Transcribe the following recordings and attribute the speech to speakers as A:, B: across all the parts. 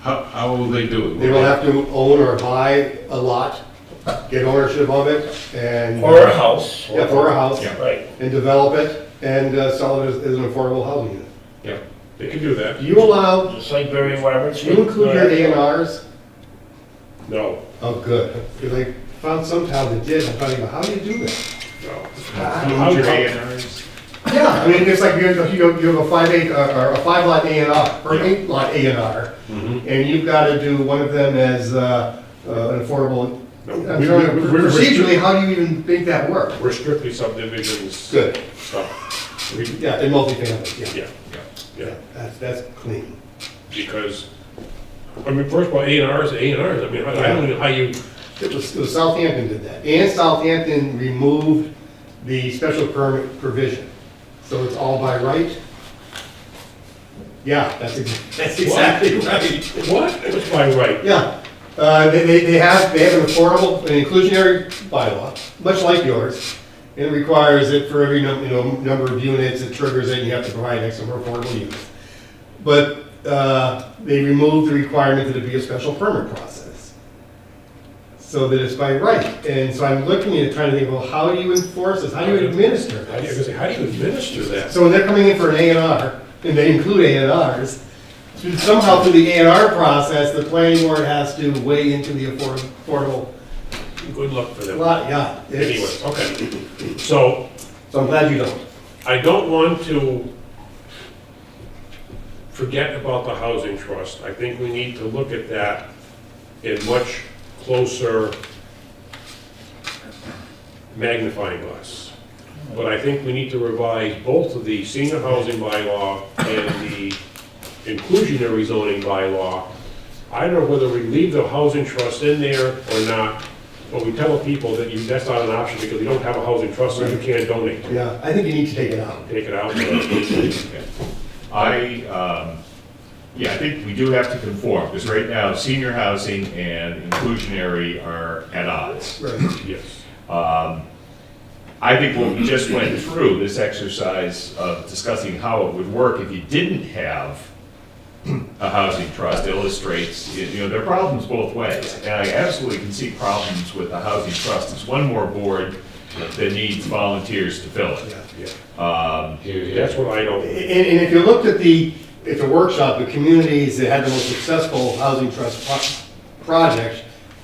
A: How, how will they do it?
B: They will have to own or buy a lot, get ownership of it, and.
C: Or a house.
B: Yeah, or a house,
A: Yeah.
C: Right.
B: and develop it, and uh, sell it as as an affordable housing unit.
A: Yeah, they can do that.
B: Do you allow,
C: Just like Barry Roberts.
B: do you include your A and Rs?
A: No,
B: Oh, good, because I found some town that did, I'm thinking, how do you do that?
A: no.
B: Ah.
A: Your A&Rs.
B: Yeah, I mean, it's like, you have, you have- you have a five eight, uh, or a five lot A and R, or an eight lot A and R,
A: Mhm.
B: and you've got to do one of them as uh, uh, an affordable,
A: No,
B: I'm
A: we-
B: sorry,
A: we- we're-
B: procedurally, how do you even make that work?
A: We're strictly subdivisions.
B: Good,
A: stuff. We-
B: yeah, and multifamily, yeah.
A: Yeah, yeah, yeah,
B: That's, that's clean.
A: because, I mean, first of all, A and Rs, A and Rs, I mean, I I don't know how you,
B: It was, it was Southampton did that, and Southampton removed the special permit provision, so it's all by right? Yeah, that's, ex- that's exactly right.
A: what? What's my right?
B: Yeah, uh, they, they, they have, they have an affordable, an inclusionary bylaw, much like yours. and It requires it for every, num- you know, number of units, it triggers it, you have to provide X number of affordable units. But, uh, they removed the requirement that it be a special permit process. So that it's by right, and so I'm looking at it, trying to think, well, how do you enforce this, how do you administer
A: How do you,
B: this?
A: how do you administer that?
B: So when they're coming in for an A and R, and they include A and Rs, somehow through the A and R process, the planning board has to weigh into the affor- affordable
A: Good luck for them.
B: lot, yeah. it's-
A: Anyway, okay. So
B: So I'm glad you don't.
A: I don't want to forget about the housing trust. I think we need to look at that in much closer magnifying glass. But I think we need to revise both of the senior housing bylaw and the inclusionary zoning bylaw. I don't know whether we leave the housing trust in there or not, but we tell people that you, that's not an option because you don't have a housing trust, so you can't donate
B: Yeah, I think you need to take it out.
A: take it out.
D: I, um, yeah, I think we do have to conform, because right now, senior housing and inclusionary are at odds.
B: Right.
A: Yes.
D: I think what we just went through, this exercise of discussing how it would work if you didn't have a housing trust illustrates, you know, there are problems both ways. And I absolutely can see problems with the housing trust. It's one more board that needs volunteers to fill it.
A: Yeah.
D: Um,
A: That's what I
B: And,
A: don't,
B: and if you looked at the, at the workshop, the communities that had the most successful housing trust pro- projects,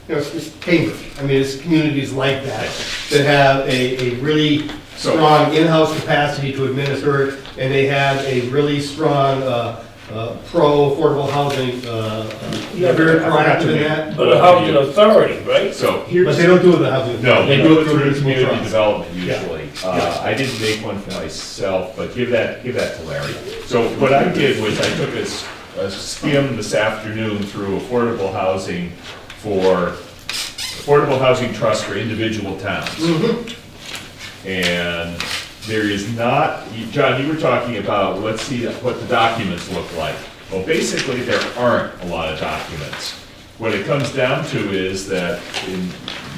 B: you know, it's just Cambridge. I mean, it's communities like that, that have a, a really
D: So-
B: strong in-house capacity to administer, it, and they have a really strong, uh, uh, pro-affordable housing, uh, uh, they're
C: Yeah,
B: very
D: I forgot to
B: proactive in
D: make-
B: that.
C: But a housing authority, right?
D: So here's.
B: But they don't do it with the housing.
D: No, they do it through
B: municipal
D: community
B: trust.
D: development
B: Yeah.
D: usually. Uh, I didn't make one for myself, but give that, give that to Larry. So what I did was I took a s- a skim this afternoon through affordable housing for, affordable housing trust for individual towns. And there is not, you- John, you were talking about, let's see what the documents look like. Well, basically, there aren't a lot of documents. What it comes down to is that in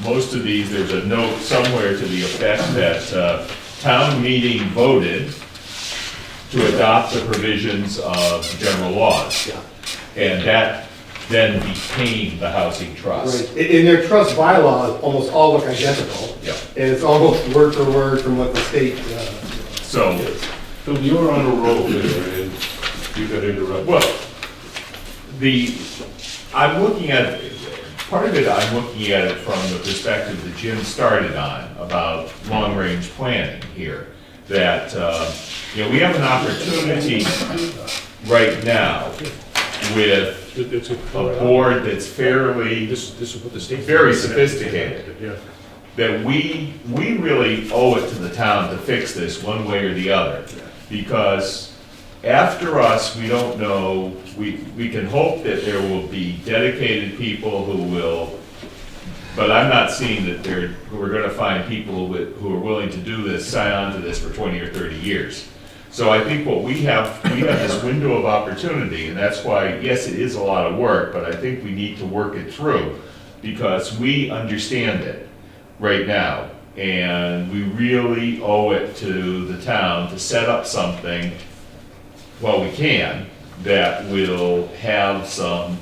D: most of these, there's a note somewhere to the effect that uh, town meeting voted to adopt the provisions of general laws.
B: Yeah.
D: And that then became the housing trust.
B: Right, and and their trust bylaws almost all look identical.
D: Yeah.
B: And it's almost word for word from what the state, uh,
D: So,
A: Phil, you were on a roll there and you got interrupted.
D: Well, the, I'm looking at, part of it, I'm looking at it from the perspective that Jim started on about long-range planning here. That, uh, you know, we have an opportunity right now with
A: It- It's
D: a
A: a,
D: board that's fairly,
A: this, this is what the state.
D: Very sophisticated.
A: Yeah.
D: that we, we really owe it to the town to fix this one way or the other. Because after us, we don't know, we, we can hope that there will be dedicated people who will, but I'm not seeing that there, we're gonna find people with, who are willing to do this, sign on to this for twenty or thirty years. So I think what we have, we have this window of opportunity, and that's why, yes, it is a lot of work, but I think we need to work it through, because we understand it right now. And we really owe it to the town to set up something, well, we can, that will have some